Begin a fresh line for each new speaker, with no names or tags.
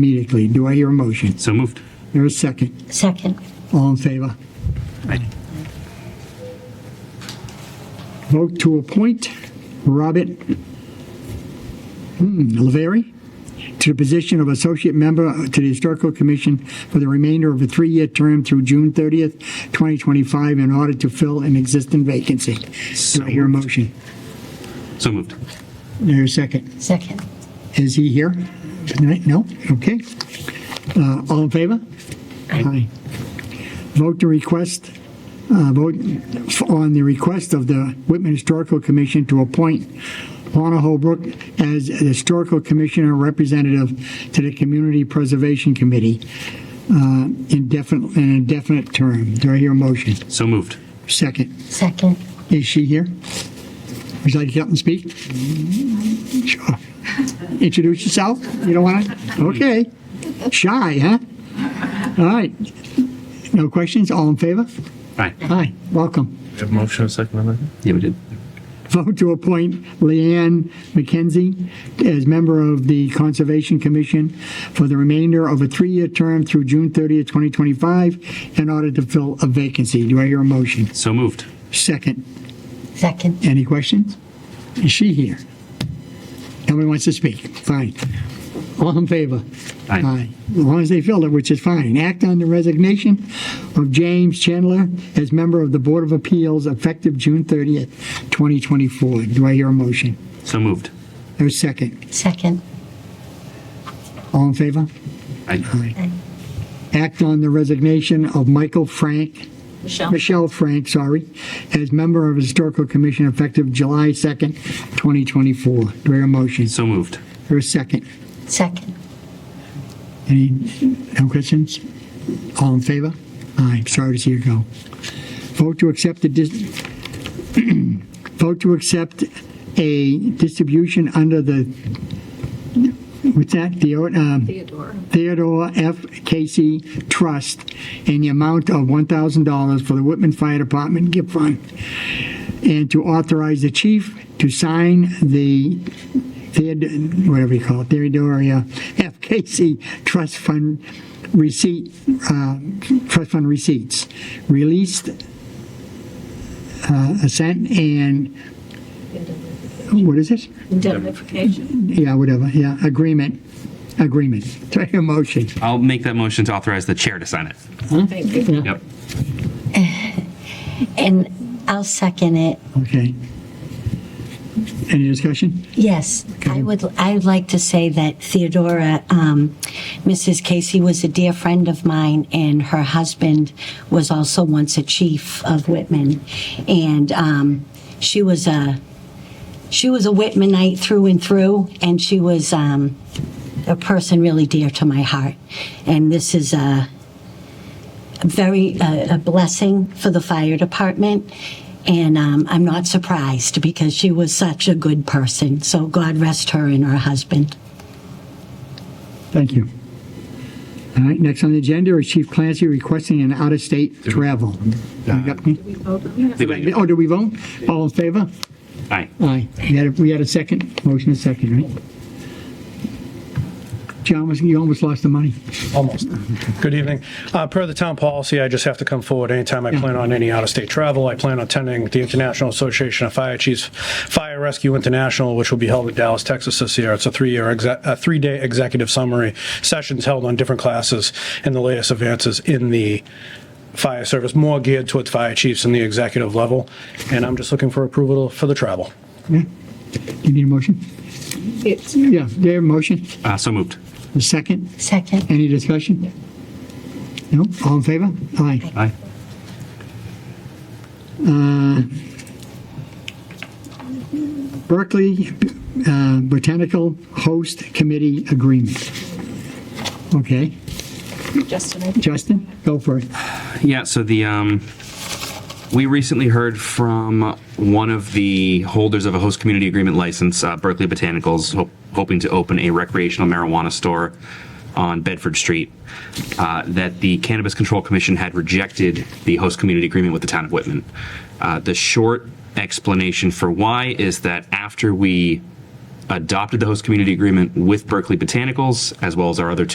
immediately. Do I hear a motion?
So moved.
There is second.
Second.
All in favor?
Aye.
Vote to appoint Robert hmm, Laveri to the position of Associate Member to the Historical Commission for the remainder of a three-year term through June 30th, 2025, in order to fill an existing vacancy. Do I hear a motion?
So moved.
There's second.
Second.
Is he here tonight? No? Okay. Uh, All in favor? Aye. Vote to request, uh, vote f- on the request of the Whitman Historical Commission to appoint Lorna Holbrook as a Historical Commissioner Representative to the Community Preservation Committee uh, indefinite, an indefinite term. Do I hear a motion?
So moved.
Second.
Second.
Is she here? Would you like to come and speak? Sure. Introduce yourself? You don't want to? Okay. Shy, huh? All right. No questions? All in favor?
Aye.
Hi, welcome.
Have motion and second on
Yeah, we did.
Vote to appoint Leanne McKenzie as member of the Conservation Commission for the remainder of a three-year term through June 30th, 2025, in order to fill a vacancy. Do I hear a motion?
So moved.
Second.
Second.
Any questions? Is she here? Nobody wants to speak. Fine. All in favor?
Aye.
As long as they filled it, which is fine. Act on the resignation of James Chandler as member of the Board of Appeals effective June 30th, 2024. Do I hear a motion?
So moved.
There's a second.
Second.
All in favor?
Aye.
Act on the resignation of Michael Frank
Michelle.
Michelle Frank, sorry, as member of Historical Commission effective July 2nd, 2024. Do I hear a motion?
So moved.
There a second.
Second.
Any, no questions? All in favor? Aye, sorry to see you go. Vote to accept the, dis- vote to accept a distribution under the, what's that? The, um,
Theodore.
Theodore F. Casey Trust in the amount of $1,000 for the Whitman Fire Department gift fund, and to authorize the chief to sign the, Theod- whatever you call it, Theodore uh, F. Casey Trust Fund receipt, uh, trust fund receipts, released uh, assent and, what is it?
Indemnification.
Yeah, whatever, yeah, agreement, agreement. Do I hear a motion?
I'll make that motion to authorize the chair to sign it.
Thank you.
Yeah.
Yep.
And I'll second it.
Okay. Any discussion?
Yes, I would, I would like to say that Theodora, um, Mrs. Casey was a dear friend of mine, and her husband was also once a chief of Whitman. And um, she was a, she was a Whitmanite through and through, and she was um, a person really dear to my heart. And this is a very, uh, a blessing for the fire department. And um, I'm not surprised because she was such a good person. So God rest her and her husband.
Thank you. All right, next on the agenda is Chief Clancy requesting an out-of-state travel. You got me?
We vote on that.
I think we did.
Oh, do we vote? All in favor?
Aye.
Aye. We had a, we had a second, motion a second, right? John, was- you almost lost the money.
Almost. Good evening. Uh, Per the town policy, I just have to come forward anytime I plan on any out-of-state travel. I plan on attending the International Association of Fire Chiefs Fire Rescue International, which will be held in Dallas, Texas this year. It's a three-year, exec- a three-day executive summary, sessions held on different classes and the latest advances in the fire service, more geared towards fire chiefs and the executive level. And I'm just looking for approval for the travel.
Yeah? You need a motion?
It's
Yeah, there, a motion,
Uh, so moved.
a second,
Second.
any discussion? No, all in favor? Aye.
Aye.
Berkeley uh, Botanical Host Committee Agreement. Okay.
Justin.
Justin, go for it.
Yeah, so the, um, we recently heard from one of the holders of a host community agreement license, uh, Berkeley Botanicals, ho- hoping to open a recreational marijuana store on Bedford Street, uh, that the Cannabis Control Commission had rejected the host community agreement with the town of Whitman. Uh, the short explanation for why is that after we adopted the host community agreement with Berkeley Botanicals, as well as our other two